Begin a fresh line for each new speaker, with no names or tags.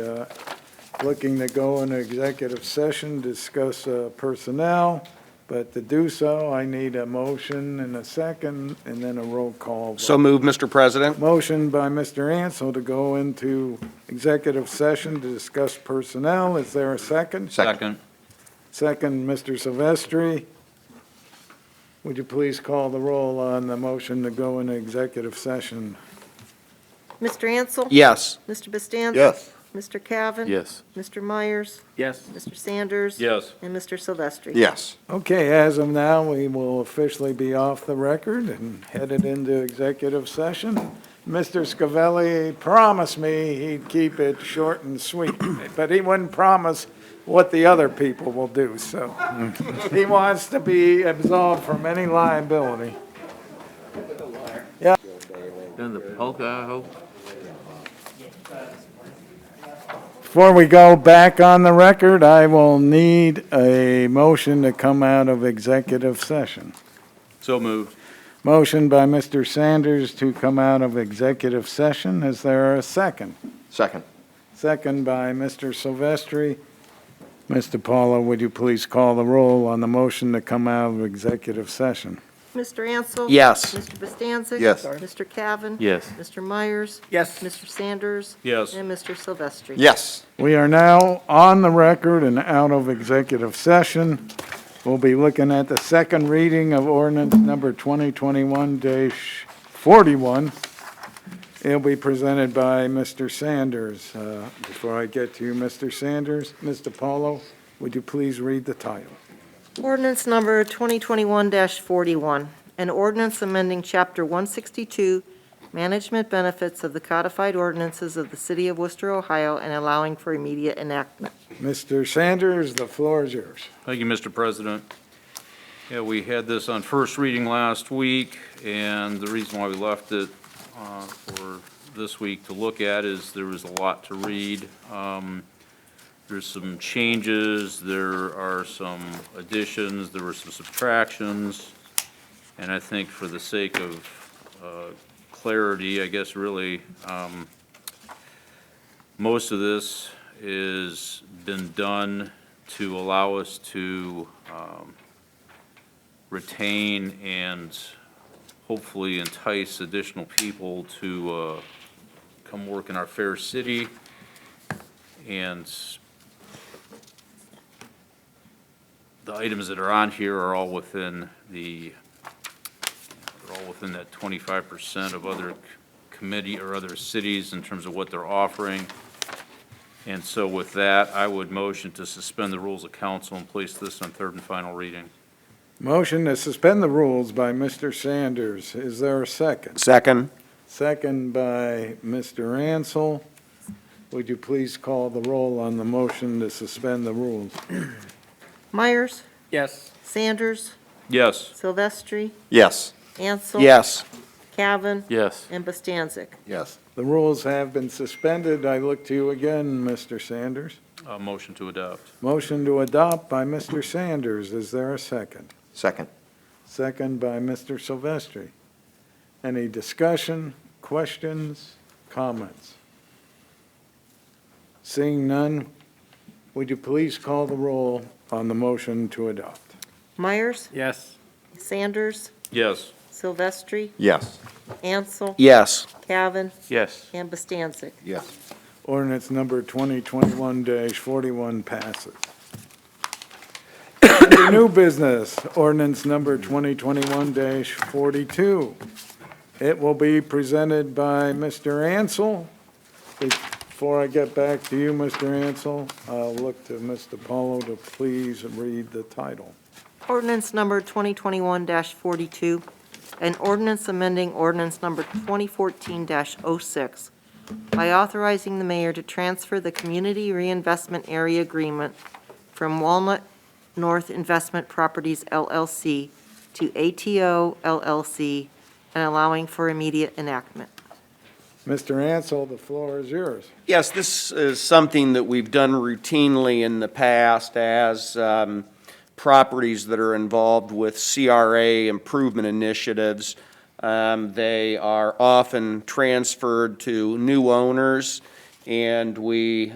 uh, looking to go into executive session, discuss uh, personnel, but to do so, I need a motion and a second, and then a roll call. vote.
So moved, Mr. President.
Motion by Mr. Ansel to go into executive session to discuss personnel. Is there a second?
Second.
Second, Mr. Silvestri. Would you please call the roll on the motion to go into executive session?
Mr. Ansel?
Yes.
Mr. Bastancik? Mr. Cavan?
Yes.
Mr. Myers?
Yes.
Mr. Sanders?
Yes.
And Mr. Silvestri?
Yes.
Okay, as of now, we will officially be off the record and headed into executive session. Mr. Scavelli promised me he'd keep it short and sweet, but he wouldn't promise what the other people will do, so he wants to be absolved from any liability.
Then the polka, I hope.
Before we go back on the record, I will need a motion to come out of executive session.
So moved.
Motion by Mr. Sanders to come out of executive session. Is there a second?
Second.
Second by Mr. Silvestri. Mr. Paulo, would you please call the roll on the motion to come out of executive session?
Mr. Ansel?
Yes.
Mr. Bastancik?
Yes.
Mr. Cavan?
Yes.
Mr. Myers?
Yes.
Mr. Sanders?
Yes.
And Mr. Silvestri?
Yes.
We are now on the record and out of executive session. We'll be looking at the second reading of ordinance number 2021-41. It'll be presented by Mr. Sanders. Uh, Before I get to you, Mr. Sanders, Mr. Paulo, would you please read the title?
Ordinance number 2021-41, an ordinance amending Chapter 162, Management Benefits of the Codified Ordinances of the City of Worcester, Ohio, and allowing for immediate enactment.
Mr. Sanders, the floor is yours.
Thank you, Mr. President. Yeah, we had this on first reading last week, and the reason why we left it uh, for this week to look at is there was a lot to read. Um, There's some changes, there are some additions, there were some subtractions, and I think for the sake of uh, clarity, I guess really, um, most of this is been done to allow us to um, retain and hopefully entice additional people to uh, come work in our fair city. And the items that are on here are all within the, they're all within that 25% of other c- committee or other cities in terms of what they're offering. And so with that, I would motion to suspend the rules of council and place this on third and final reading.
Motion to suspend the rules by Mr. Sanders. Is there a second?
Second.
Second by Mr. Ansel. Would you please call the roll on the motion to suspend the rules?
Myers?
Yes.
Sanders?
Yes.
Silvestri?
Yes.
Ansel?
Yes.
Cavan?
Yes.
And Bastancik.
Yes.
The rules have been suspended. I look to you again, Mr. Sanders.
Uh, motion to adopt.
Motion to adopt by Mr. Sanders. Is there a second?
Second.
Second by Mr. Silvestri. Any discussion, questions, comments? Seeing none, would you please call the roll on the motion to adopt?
Myers?
Yes.
Sanders?
Yes.
Silvestri?
Yes.
Ansel?
Yes.
Cavan?
Yes.
And Bastancik.
Yes.
Ordinance number 2021-41 passes. Under new business, ordinance number 2021-42. It will be presented by Mr. Ansel. Before I get back to you, Mr. Ansel, I'll look to Mr. Paulo to please read the title.
Ordinance number 2021-42, an ordinance amending ordinance number 2014-06 by authorizing the mayor to transfer the Community Reinvestment Area Agreement from Walnut North Investment Properties LLC to ATO LLC and allowing for immediate enactment.
Mr. Ansel, the floor is yours.
Yes, this is something that we've done routinely in the past as um, properties that are involved with CRA improvement initiatives. Um, They are often transferred to new owners, and we